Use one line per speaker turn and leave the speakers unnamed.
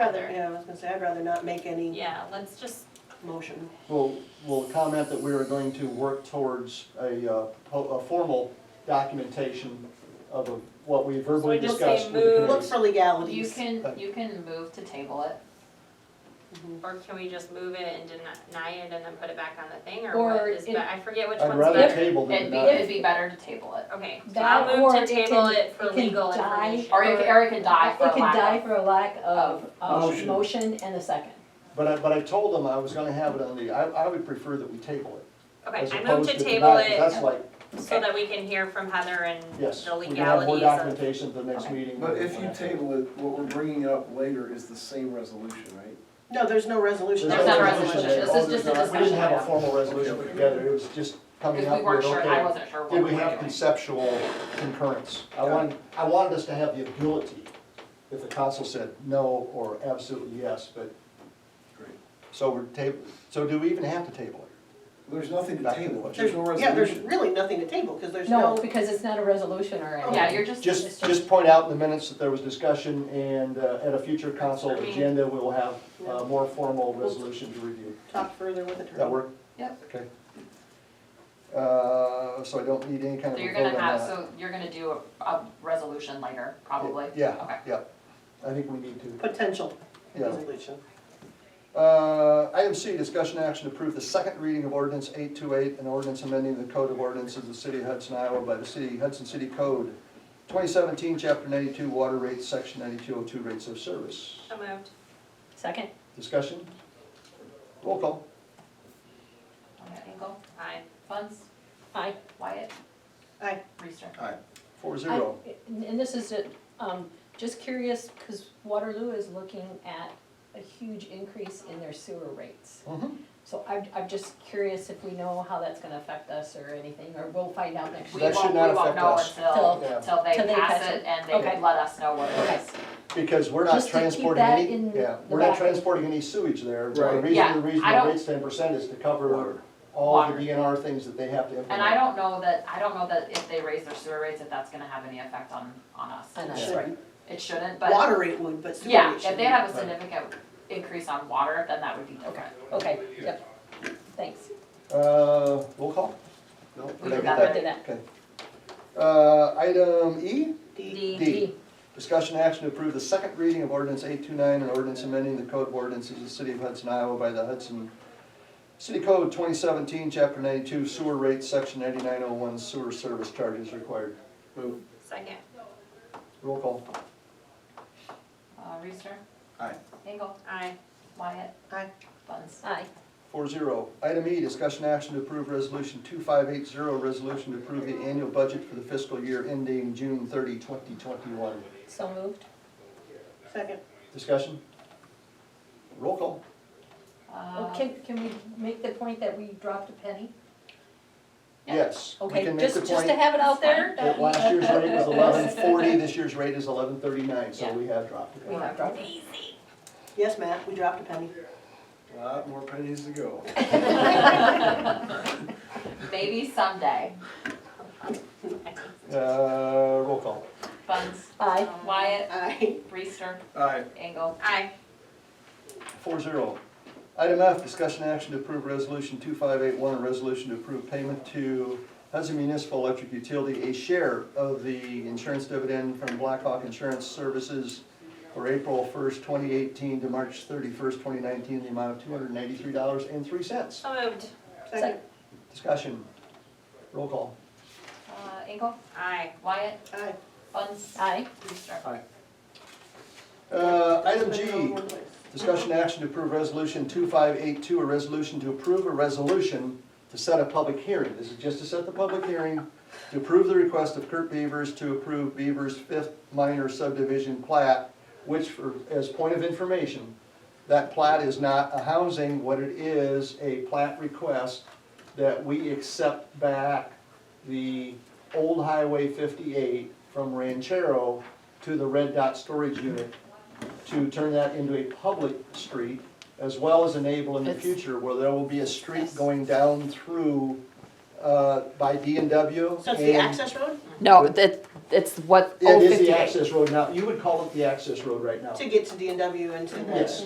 Rather,
Yeah, I was gonna say, I'd rather not make any
Yeah, let's just,
motion.
We'll, we'll comment that we are going to work towards a, uh, po- a formal documentation of what we verbally
So I just
discussed
say
with the
move-
Look
committees.
for
You
legalities.
can, you can move to table it,
or can we just move it and deny it and then put it back on the thing, or
Or
what is,
it-
but I forget which
I'd
one's
rather
better.
table than
it'd be,
not.
it'd be better to table it.
Okay, so
That
I'll move
or
to
it
table
can-
it for
it can
legal
die.
information.
Or it, or it could die for
It
a
could die
lack of.
for a lack of, of
Motion.
motion and a second.
But I, but I told them I was gonna have it on the, I, I would prefer that we table it.
Okay,
as
I move
opposed
to
deny,
table
'cause That's
it
like,
so that we can hear from Heather and
yes,
the
we can have more
legalities of.
documentation at the next
Okay.
meeting.
But if you table it, what we're bringing up later is the same resolution, right?
No, there's no resolution.
There's no
no
resolution. This
All
is just a
there's- We
discussion
didn't have a
item.
formal resolution put together, it was just coming
Because
up
we
with,
weren't
okay.
sure, I wasn't sure what we
Did
were
we have
doing.
conceptual concurrence? I wanted, I wanted us to have the ability, if the council said no or absolutely yes, but,
Great.
so we're table, so do we even have to table it?
There's nothing to
Back to
table,
what?
there's no
Yeah, there's
resolution.
really nothing to table, because there's
No,
no,
because it's not a resolution or anything.
Yeah, you're just, it's
Just,
just,
just point out in the minutes that there was discussion, and uh, at a future council
I mean-
agenda, we will have a more formal resolution to review.
talk further with the attorney.
That work?
Yep.
Okay. Uh, so I don't need any kind of a
so
vote
you're
on
gonna have,
that.
so you're gonna do a, a resolution later, probably?
Yeah,
Okay.
yeah, I think we need to.
Potential
Yeah.
resolution.
Uh, Item C, discussion action to approve the second reading of ordinance 828, an ordinance amending the code of ordinances of the city of Hudson, Iowa by the city Hudson City Code, 2017, Chapter 92, Water Rates, Section 9202, Rates of Service.
So moved.
Second,
Discussion? Roll call.
Okay, Engel,
Aye.
Funds,
I,
Wyatt?
Aye.
Reister?
Four
I,
zero.
and this is, it, um, just curious, cause Waterloo is looking at a huge increase in their sewer rates.
Mhm.
So I'm, I'm just curious if we know how that's gonna affect us or anything, or we'll find out next
We
week.
That
won't,
should
we
not
won't
affect
know
us.
until,
Yeah.
till
Till
they pass it and they
Okay.
let us know what
Okay.
it is.
Because we're not
Just to keep
transporting
that
any,
in
yeah,
the
we're not
back.
transporting any sewage there. The
Right.
reason,
Yeah,
the reason
I
the
don't-
rate's 10% is to cover
Water.
all the
Water.
DNR things that they have to implement.
And I don't know that, I don't know that if they raise their sewer rates, if that's gonna have any effect on, on us.
On us.
Should-
Right.
It shouldn't, but,
Water rate would, but sewer
yeah,
rate
if
shouldn't.
they have a significant increase on water, then that would be different.
Okay, yep, thanks.
Uh, roll call? No,
We
did I
did
get
that
that?
Did that.
Okay. Uh, item E,
D.
D.
D, discussion action to approve the second reading of ordinance eight two nine, an ordinance amending the code of ordinances of the city of Hudson, Iowa by the Hudson City Code twenty seventeen, chapter ninety-two, sewer rates, section ninety-nine oh one, sewer service charges required.
Move.
Second.
Roll call.
Uh, Reister?
Aye.
Engel?
Aye.
Wyatt?
Aye.
Buns?
Aye,
Four zero. Item E, discussion action to approve resolution two five eight zero, resolution to approve the annual budget for the fiscal year ending June 30, 2021.
so moved,
Second.
Discussion? Roll call.
Uh,
Oh, can, can we make the point that we dropped a penny?
Yeah.
Yes. we
Okay,
can make
just,
the
just
point
to have it out there,
That last year's rate was eleven forty, this year's rate is eleven thirty-nine, so
Yeah.
we have dropped
we
it.
have dropped it.
Yes, Matt, we dropped a penny.
Lot more pennies to go.
Maybe someday.
Uh, roll call.
Buns?
Aye.
Wyatt?
Aye.
Reister?
Aye.
Engel?
Aye.
Four zero. Item F, discussion action to approve resolution two five eight one, a resolution to approve payment to Hudson Municipal Electric Utility, a share of the insurance dividend from Blackhawk Insurance Services for April first, twenty eighteen to March thirty-first, twenty nineteen, the amount of two hundred and eighty-three dollars and three cents.
So moved.
Second.
Discussion. Roll call.
Uh, Engel?
Aye.
Wyatt?
Aye.
Buns?
Aye,
Reister?
Uh, item
Put it all in
G,
one place.
discussion action to approve resolution two five eight two, a resolution to approve a resolution to set a public hearing. This is just to set the public hearing, to approve the request of Kurt Beavers to approve Beavers' fifth minor subdivision plat, which for, as point of information, that plat is not a housing, what it is, a plat request that we accept back the old Highway fifty-eight from Ranchero to the Red Dot Storage Unit to turn that into a public street, as well as enable in the future where there will be a street going down through, uh, by D and W.
So it's the access road?
No, that,
it's what
It
old
is the
fifty-eight.
access road now, you would call it the access road right now.
to get to D and W and to the.
Yes.